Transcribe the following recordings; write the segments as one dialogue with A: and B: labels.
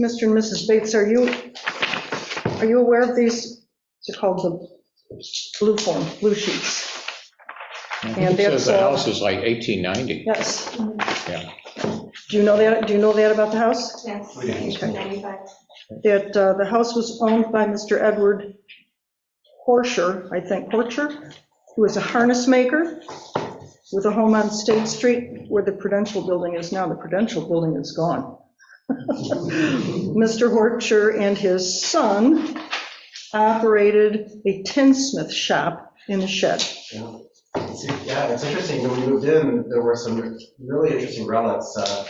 A: Mr. and Mrs. Bates, are you, are you aware of these? They're called the blue form, blue sheets. And
B: It says
A: that's,
B: the
A: uh,
B: house is like 1890,
A: yes.
B: yeah.
A: Do you know that, do you know that about the house?
C: Yes,
D: We didn't.
C: 95.
A: That uh, the house was owned by Mr. Edward Horsher, I think, Horcher, who was a harness maker with a home on State Street where the Prudential Building is now. The Prudential Building is gone. Mr. Horcher and his son operated a tinsmith shop in a shed.
D: See, Yeah, it's interesting, when we moved in, there were some really interesting relics uh,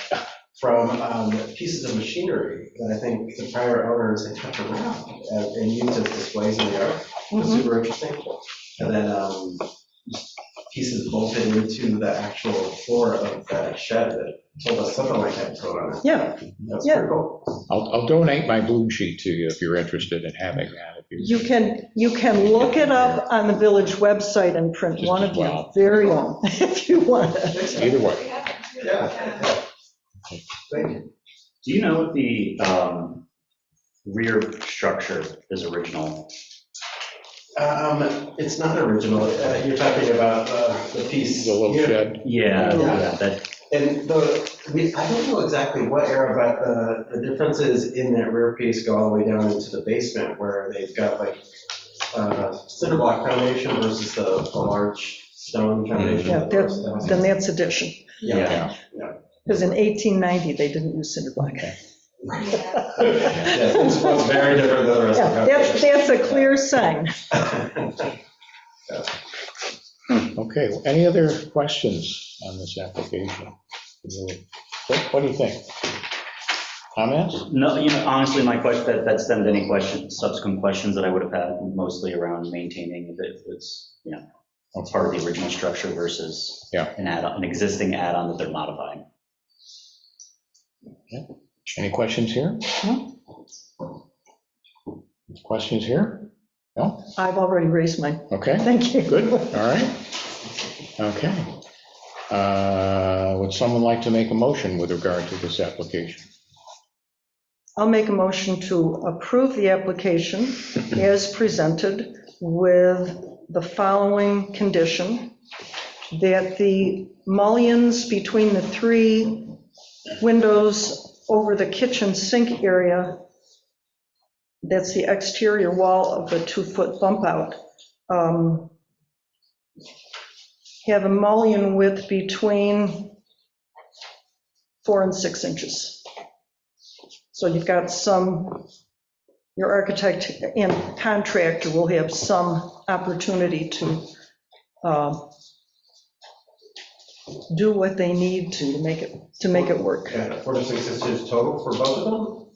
D: from um, pieces of machinery that I think the prior owners had kept around and and used as displays in the yard. It was
A: Mhm.
D: super interesting. And then um, pieces bolted into the actual floor of that shed that told us something like that was going on.
A: Yeah,
D: That's
A: Yeah.
D: pretty cool.
B: I'll I'll donate my blue sheet to you if you're interested in having that. if
A: you can, you can look it up on the village website and print one of your
B: Wow.
A: very own if you want it.
B: Either way,
D: Yeah. Thank you.
E: Do you know if the um, rear structure is original?
D: Um, It's not original, Uh, you're talking about uh, the piece.
B: the little
D: here.
B: shed,
E: Yeah,
D: Yeah.
E: yeah, that,
D: And the, we, I don't know exactly what era, but the, the differences in that rear piece go all the way down into the basement where they've got like uh, cinder block foundation versus the, the large
B: Mm-hmm.
D: stone foundation.
A: Yeah,
D: that the rest of
A: that-
D: the
A: then
D: house-
A: that's addition,
D: Yeah.
B: yeah.
A: because in 1890, they didn't use cinder block.
C: Yeah.
D: Yeah, it's, it's very different than the rest of
A: Yeah,
D: the
A: That's,
D: foundation.
A: that's a clear sign.
B: Okay, well, any other questions on this application? What what do you think? Comments?
E: no, you know, honestly, my question, that, that stemmed any questions, subsequent questions that I would have had mostly around maintaining if it was, you know, it's part of the original structure versus
B: Yeah.
E: an add-on, an existing add-on that they're modifying.
B: Any questions here? Questions here? No?
A: I've already raised mine,
B: Okay.
A: thank you.
B: Good, all right. Okay. Uh, Would someone like to make a motion with regard to this application?
A: I'll make a motion to approve the application as presented with the following condition, that the mullions between the three windows over the kitchen sink area, that's the exterior wall of the two-foot bump out, um, have a mullion width between four and six inches. So you've got some, your architect and contractor will have some opportunity to uh, do what they need to to make it, to make it work.
D: Yeah, Four to six inches total for both of them,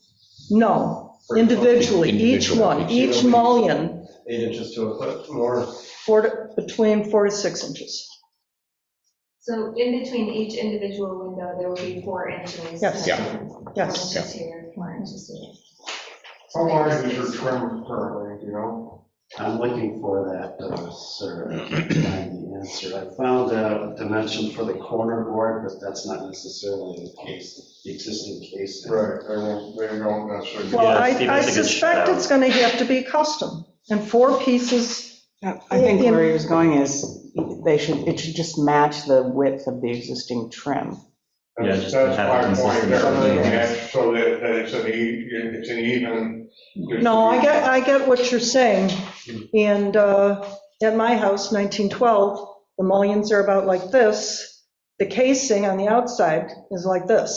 A: No, individually, each one, each mullion,
D: eight inches to a foot more.
A: four, to- between four to six inches.
C: So in between each individual window, there will be four inches.
A: Yes.
B: Yeah.
A: Yes.
C: Four inches here, four inches here.
F: How large is your trim currently, do you know?
G: I'm looking for that, uh, sir, I can't find the answer. I found a dimension for the corner board, but that's not necessarily the case, the existing case.
F: Right, they won't, they don't uh, necessarily.
A: Well, I
E: Steve,
A: I
E: that's a good
A: suspect
E: shout.
A: it's going to have to be custom, and four pieces,
H: I Uh, I think
A: In-
H: where he was going is, they should, it should just match the width of the existing trim.
E: Yeah, just to
F: That's
E: have it
F: my point
E: consistent.
F: there,
E: Yeah.
F: yeah, so that, that it's an e, it's an even.
A: no, I get, I get what you're saying, and uh, at my house, 1912, the mullions are about like this, the casing on the outside is like this.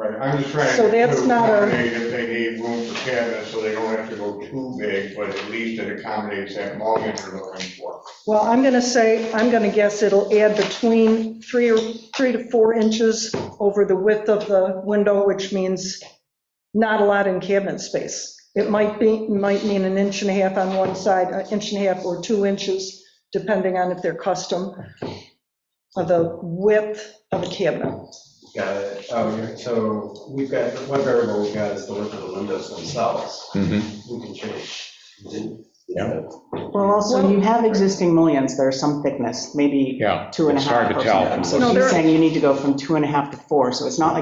F: Right, I'm just trying.
A: So that's
F: to
A: not a-
F: accommodate If they need room for cabinets, so they don't have to go too big, but at least it accommodates that mullion they're looking for.
A: Well, I'm going to say, I'm going to guess it'll add between three or, three to four inches over the width of the window, which means not a lot in cabinet space. It might be, might mean an inch and a half on one side, an inch and a half or two inches, depending on if they're custom, of the width of a cabinet.
D: Got it. Um, So we've got, one variable we've got is the width of the windows themselves. We can change.
G: Mm-hmm.
B: Yeah.
H: Well, also, you have existing mullions, there are some thickness, maybe
B: Yeah.
H: two and a
B: it's
H: half
B: hard to
H: or
B: tell.
H: something.
A: No,
H: So
A: there-
H: he's saying you need to go from two and a half to four, so it's not like